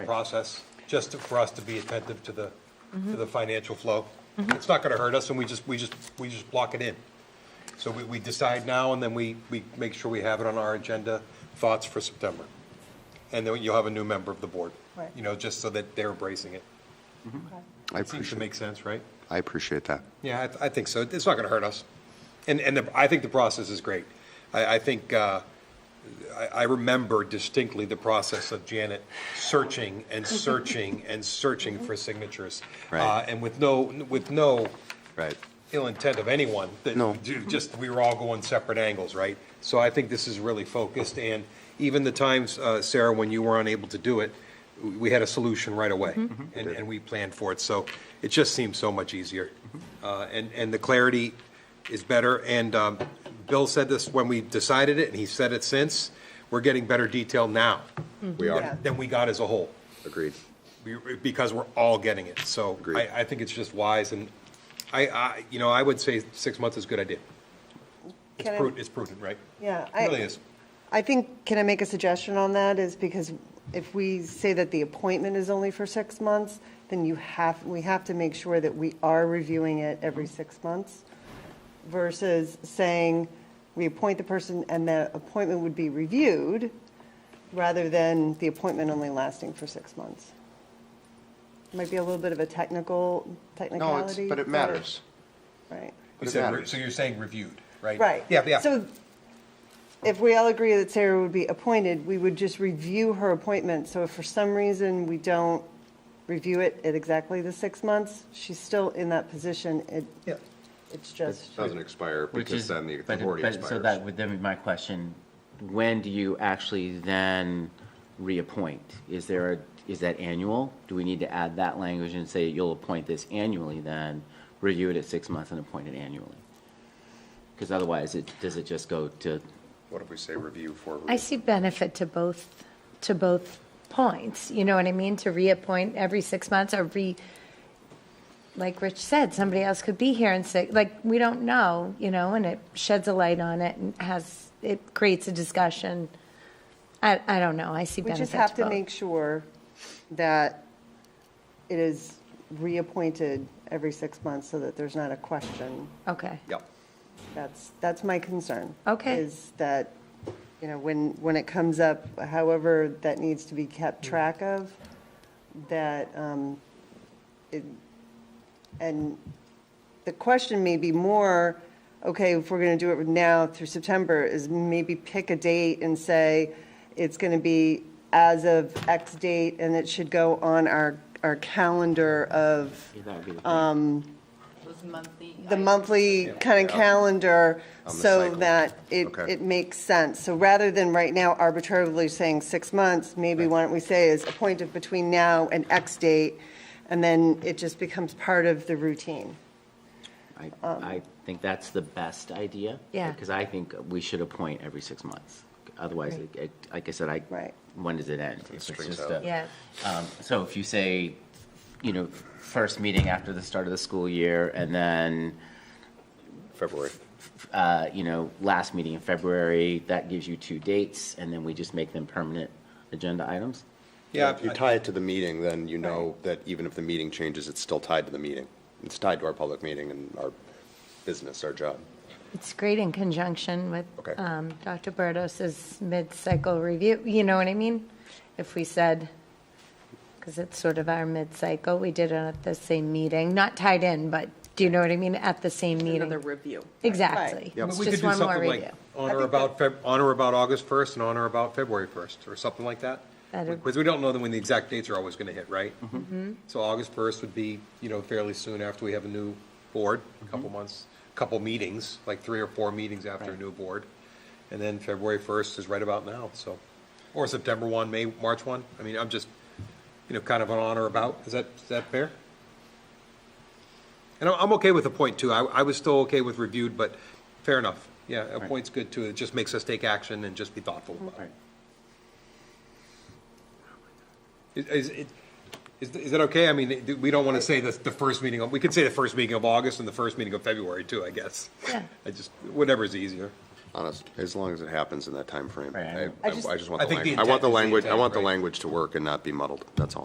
process, just to- for us to be attentive to the, to the financial flow. It's not gonna hurt us, and we just, we just, we just block it in. So we, we decide now, and then we, we make sure we have it on our agenda, thoughts for September. And then you'll have a new member of the board. Right. You know, just so that they're embracing it. I It seems to appreciate, make sense, right? I appreciate that. Yeah, I, th- I think so. It's not going to hurt us. And, and the, I think the process is great. I, I think, uh, I, I remember distinctly the process of Janet searching and searching and searching for signatures. Right. Uh, And with no, with no Right. ill intent of anyone, that No. ju- just, we were all going separate angles, right? So I think this is really focused, and even the times, uh, Sarah, when you were unable to do it, w- we had a solution right away, and, and we planned for it, so it just seems so much easier. Uh, And, and the clarity is better, and um, Bill said this when we decided it, and he said it since, we're getting better detail now Mm-hmm. We Yeah. are, than we got as a whole, agreed. be- because we're all getting it, so Agreed. I, I think it's just wise, and I, I, you know, I would say six months is a good idea. It's Can I- prudent, it's prudent, right? Yeah, I- It really is. I think, can I make a suggestion on that, is because if we say that the appointment is only for six months, then you have, we have to make sure that we are reviewing it every six months, versus saying, we appoint the person and the appointment would be reviewed, rather than the appointment only lasting for six months. Might be a little bit of a technical, No, it's, technicality. but it matters. Right. You it said re- matters. So you're saying reviewed, right? Right. Yeah, yeah. So if we all agree that Sarah would be appointed, we would just review her appointment. So if for some reason we don't review it at exactly the six months, she's still in that position. It, Yeah. it's just, Doesn't expire Which because is, then the but it- authority but- So that expires. would then be my question, when do you actually then reappoint? Is there a, is that annual? Do we need to add that language and say you'll appoint this annually then, review it at six months and appoint it annually? Because otherwise, it, does it just go to, What if we say review for, I see benefit to both, to both points, you know what I mean? To reappoint every six months or re, like Rich said, somebody else could be here and say, like, we don't know, you know, and it sheds a light on it and has, it creates a discussion. I, I don't know, I see we benefit just to have to both. make sure that it is reappointed every six months so that there's not a question. Okay, Yep. That's, that's my concern. Okay. Is that, you know, when, when it comes up, however that needs to be kept track of, that, um, it- and the question may be more, okay, if we're going to do it now through September, is maybe pick a date and say, it's going to be as of X date, and it should go on our, our calendar of that would be the Um, Those monthly. the items. monthly kind of calendar On the so cycle. that it, Okay. it makes sense. So rather than right now arbitrarily saying six months, maybe why don't we say is appointed between now and X date, and then it just becomes part of the routine. I, I think that's the best idea. um, Yeah. Because I think we should appoint every six months. Otherwise, it- it- like I said, I. Right. When does it end? It's strings just out. a- yeah, Um, So if you say, you know, first meeting after the start of the school year, and then, February? uh, you know, last meeting in February, that gives you two dates, and then we just make them permanent agenda items? Yeah, If you tie it to the meeting, then you know that even if the meeting changes, it's still tied to the meeting. It's tied to our public meeting and our business, our job. it's great in conjunction with Okay. um, Dr. Berdos's mid-cycle review, you know what I mean? If we said, because it's sort of our mid-cycle, we did it at the same meeting, not tied in, but, do you know what I mean, at the same meeting? Another review. Exactly. I mean, It's we could just do one more something like review. On or about, Feb- on or about August 1st and on or about February 1st, or something like that. That'd- Because we don't know when the exact dates are always going to hit, right? Mm-hmm. Mm-hmm. So August 1st would be, you know, fairly soon after we have a new board, a couple Mm-hmm. months, a couple meetings, like three or four meetings after a new board. And then February 1st is right about now, so, or September 1, May, March 1. I mean, I'm just, you know, kind of an on or about. Is that, is that fair? And I'm, I'm okay with a point too. I, I was still okay with reviewed, but fair enough. Yeah, a point's good too. It just makes us take action and just be thoughtful about it. Right. Is, is it, is, is that okay? I mean, do- we don't want to say the, the first meeting, of- we could say the first meeting of August and the first meeting of February too, I guess. Yeah. I just, whatever's easier. honest, as long as it happens in that timeframe. Right, I I, know. I I just- I just want I the think the language, I want intent is the the language, I intent, want the right. language to work and not be muddled, that's all.